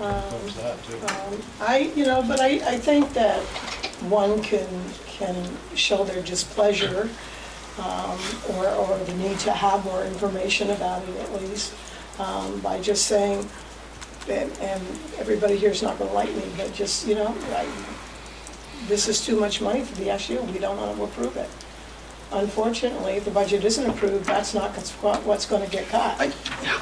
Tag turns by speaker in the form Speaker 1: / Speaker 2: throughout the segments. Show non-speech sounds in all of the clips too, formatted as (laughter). Speaker 1: Um,
Speaker 2: Close that too.
Speaker 1: um, I, you know, but I, I think that one can, can show their displeasure um, or, or the need to have more information about it at least um, by just saying, and, and everybody here's not gonna like me, but just, you know, I, this is too much money for the SU, we don't wanna approve it. Unfortunately, if the budget isn't approved, that's not what's- what's gonna get cut.
Speaker 3: I-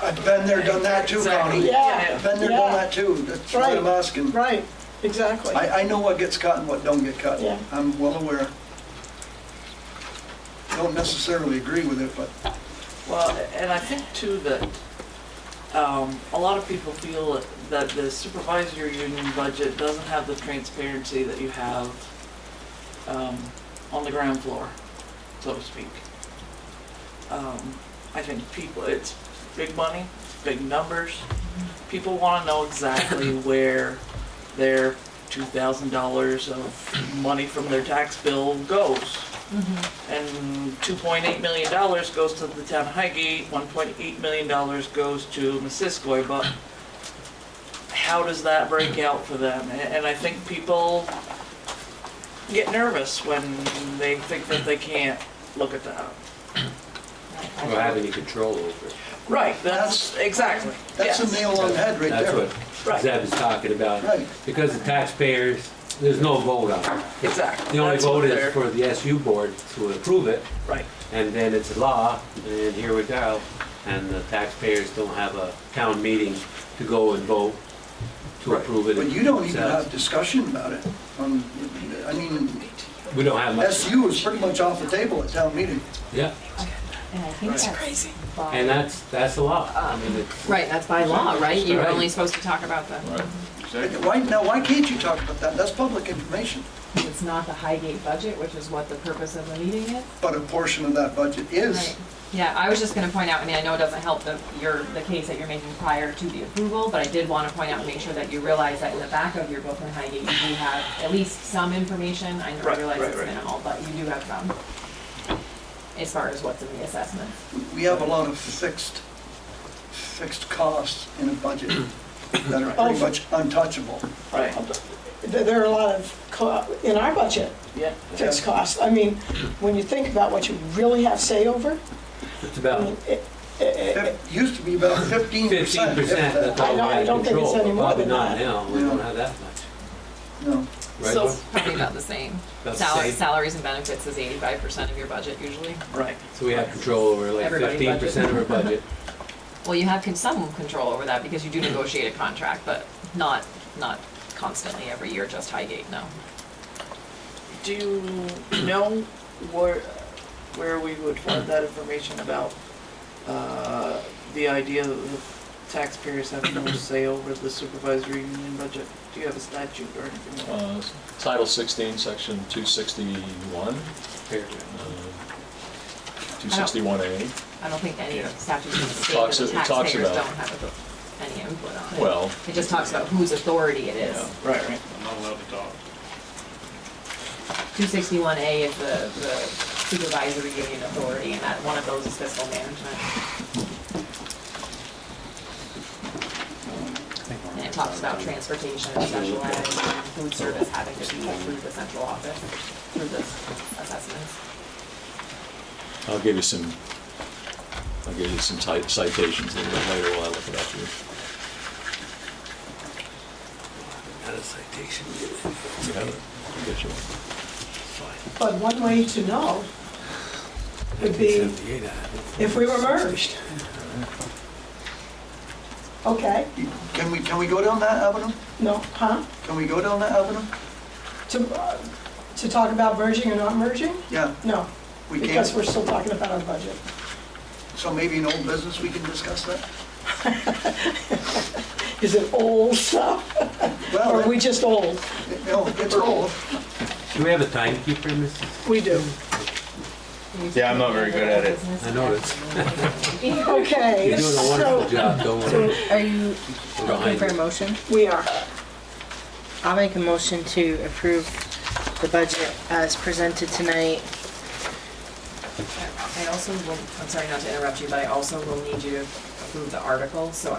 Speaker 3: I've been there, done that too,
Speaker 4: Exactly.
Speaker 3: Connie.
Speaker 1: Yeah.
Speaker 3: I've been there,
Speaker 1: Yeah.
Speaker 3: done that too. That's what I'm
Speaker 1: Right.
Speaker 3: asking.
Speaker 1: Right, exactly.
Speaker 3: I, I know what gets cut and what don't get cut.
Speaker 1: Yeah.
Speaker 3: I'm well aware. Don't necessarily agree with it, but
Speaker 4: Well, and I think too that um, a lot of people feel that the supervisor union budget doesn't have the transparency that you have um, on the ground floor, so to speak. Um, I think people, it's big money, big numbers. People want to
Speaker 3: (laughs)
Speaker 4: know exactly where their $2,000 of money from their tax bill goes. And two point eight million dollars goes to the town of Highgate, one point eight million dollars goes to Missisquoi, but how does that break out for them? A- And I think people get nervous when they think that they can't look at that.
Speaker 5: don't have any control over it.
Speaker 4: Right, that's, exactly,
Speaker 3: that's a
Speaker 4: yes.
Speaker 3: nail on the head right
Speaker 5: That's
Speaker 3: there.
Speaker 5: what
Speaker 4: Right.
Speaker 5: Zeb is talking about.
Speaker 3: Right.
Speaker 5: Because the taxpayers, there's no vote on it.
Speaker 4: Exactly.
Speaker 5: The only
Speaker 4: That's what
Speaker 5: vote
Speaker 4: they're-
Speaker 5: is for the SU board to approve it,
Speaker 4: Right,
Speaker 5: and then it's law, and here we go. And the taxpayers don't have a town meeting to go and vote to approve it.
Speaker 3: But you don't even have
Speaker 5: themselves.
Speaker 3: discussion about it. Um, I mean,
Speaker 5: We don't have much,
Speaker 3: SU is pretty much off the table at town meeting.
Speaker 5: yeah,
Speaker 6: And I think
Speaker 4: That's
Speaker 6: that's crazy.
Speaker 5: and that's, that's the law. I mean, it's,
Speaker 7: Right, that's by law, right? You're
Speaker 5: Right.
Speaker 7: only supposed to talk about the,
Speaker 3: Why, now, why can't you talk about that? That's public information.
Speaker 6: It's not the Highgate budget, which is what the purpose of the meeting is.
Speaker 3: But a portion of that budget is.
Speaker 7: Right. Yeah, I was just gonna point out, I mean, I know it doesn't help the, your, the case that you're making prior to the approval, but I did wanna point out and make sure that you realize that in the back of your book in Highgate, you do have at least some information. I know, I
Speaker 4: Right,
Speaker 7: realize
Speaker 4: right,
Speaker 7: it's
Speaker 4: right.
Speaker 7: minimal, but you do have some, as far as what's in the assessment.
Speaker 3: We have a lot of fixed, fixed costs in a budget that are pretty much untouchable.
Speaker 4: right,
Speaker 1: There there are a lot of, co- in our budget,
Speaker 4: yeah.
Speaker 1: fixed costs. I mean, when you think about what you really have say over,
Speaker 5: it's
Speaker 1: I
Speaker 5: about
Speaker 1: mean, it- it- it-
Speaker 3: It used to be about fifteen
Speaker 5: fifteen
Speaker 3: percent.
Speaker 5: percent that's all we
Speaker 1: I don't- I
Speaker 5: have
Speaker 1: don't think it's
Speaker 5: control,
Speaker 1: any
Speaker 5: but
Speaker 1: more
Speaker 5: probably
Speaker 1: than
Speaker 5: not
Speaker 1: that.
Speaker 5: now. We don't have that much.
Speaker 3: No,
Speaker 5: Right,
Speaker 4: So-
Speaker 5: Laura?
Speaker 7: Probably about the same.
Speaker 5: About the
Speaker 7: Sal-
Speaker 5: same.
Speaker 7: Salaries and benefits is eighty-five percent of your budget usually.
Speaker 4: Right,
Speaker 5: So we have control over like
Speaker 7: Everybody's
Speaker 5: fifteen percent of our budget.
Speaker 7: Well, you have con- some control over that because you do negotiate a contract, but not, not constantly every year, just Highgate, no.
Speaker 4: do you know where, where we would find that information about, uh, the idea that the taxpayers have no say over the supervisory union budget? Do you have a statute or anything? like that?
Speaker 2: Uh, Title 16, Section 261, uh, 261A.
Speaker 7: I don't think any
Speaker 2: Yeah.
Speaker 7: statute in the state that
Speaker 2: Talks-
Speaker 7: the
Speaker 2: it talks
Speaker 7: taxpayers
Speaker 2: about-
Speaker 7: don't have a- any input on it.
Speaker 2: Well,
Speaker 7: It just talks about whose authority it is.
Speaker 2: Yeah.
Speaker 4: Right, right.
Speaker 8: I'm not allowed to talk.
Speaker 7: Two sixty-one A is the, the supervisory union authority, and that, one of those is fiscal management. And it talks about transportation, special ed, and food service having to be through the central office, through the assessments.
Speaker 2: I'll give you some, I'll give you some ti- citations a little bit later while I look it up here.
Speaker 5: Not a citation.
Speaker 2: You have it? I'll get you one.
Speaker 1: but one way to know would be if we were merged. Okay,
Speaker 3: can we, can we go down that avenue?
Speaker 1: no, huh?
Speaker 3: Can we go down that avenue?
Speaker 1: To, uh, to talk about merging or not merging?
Speaker 3: Yeah,
Speaker 1: No,
Speaker 3: we can.
Speaker 1: because we're still talking about our budget.
Speaker 3: So maybe in old business, we can discuss that?
Speaker 1: Is it old stuff, or
Speaker 3: Well,
Speaker 1: are we
Speaker 3: it-
Speaker 1: just old?
Speaker 3: no, it's old.
Speaker 5: Do we have a timekeeper, Mrs.?
Speaker 1: We
Speaker 5: (laughs)
Speaker 1: do.
Speaker 8: Yeah, I'm not very good at it.
Speaker 5: I noticed.
Speaker 7: (laughs)
Speaker 1: Okay,
Speaker 5: You're doing a wonderful
Speaker 1: so
Speaker 5: job, don't worry.
Speaker 9: Are you
Speaker 5: We're
Speaker 9: looking
Speaker 5: behind
Speaker 9: for a
Speaker 5: you.
Speaker 9: motion?
Speaker 1: we are,
Speaker 9: I'll make a motion to approve the budget as presented tonight.
Speaker 7: I also will, I'm sorry not to interrupt you, but I also will need you to approve the article, so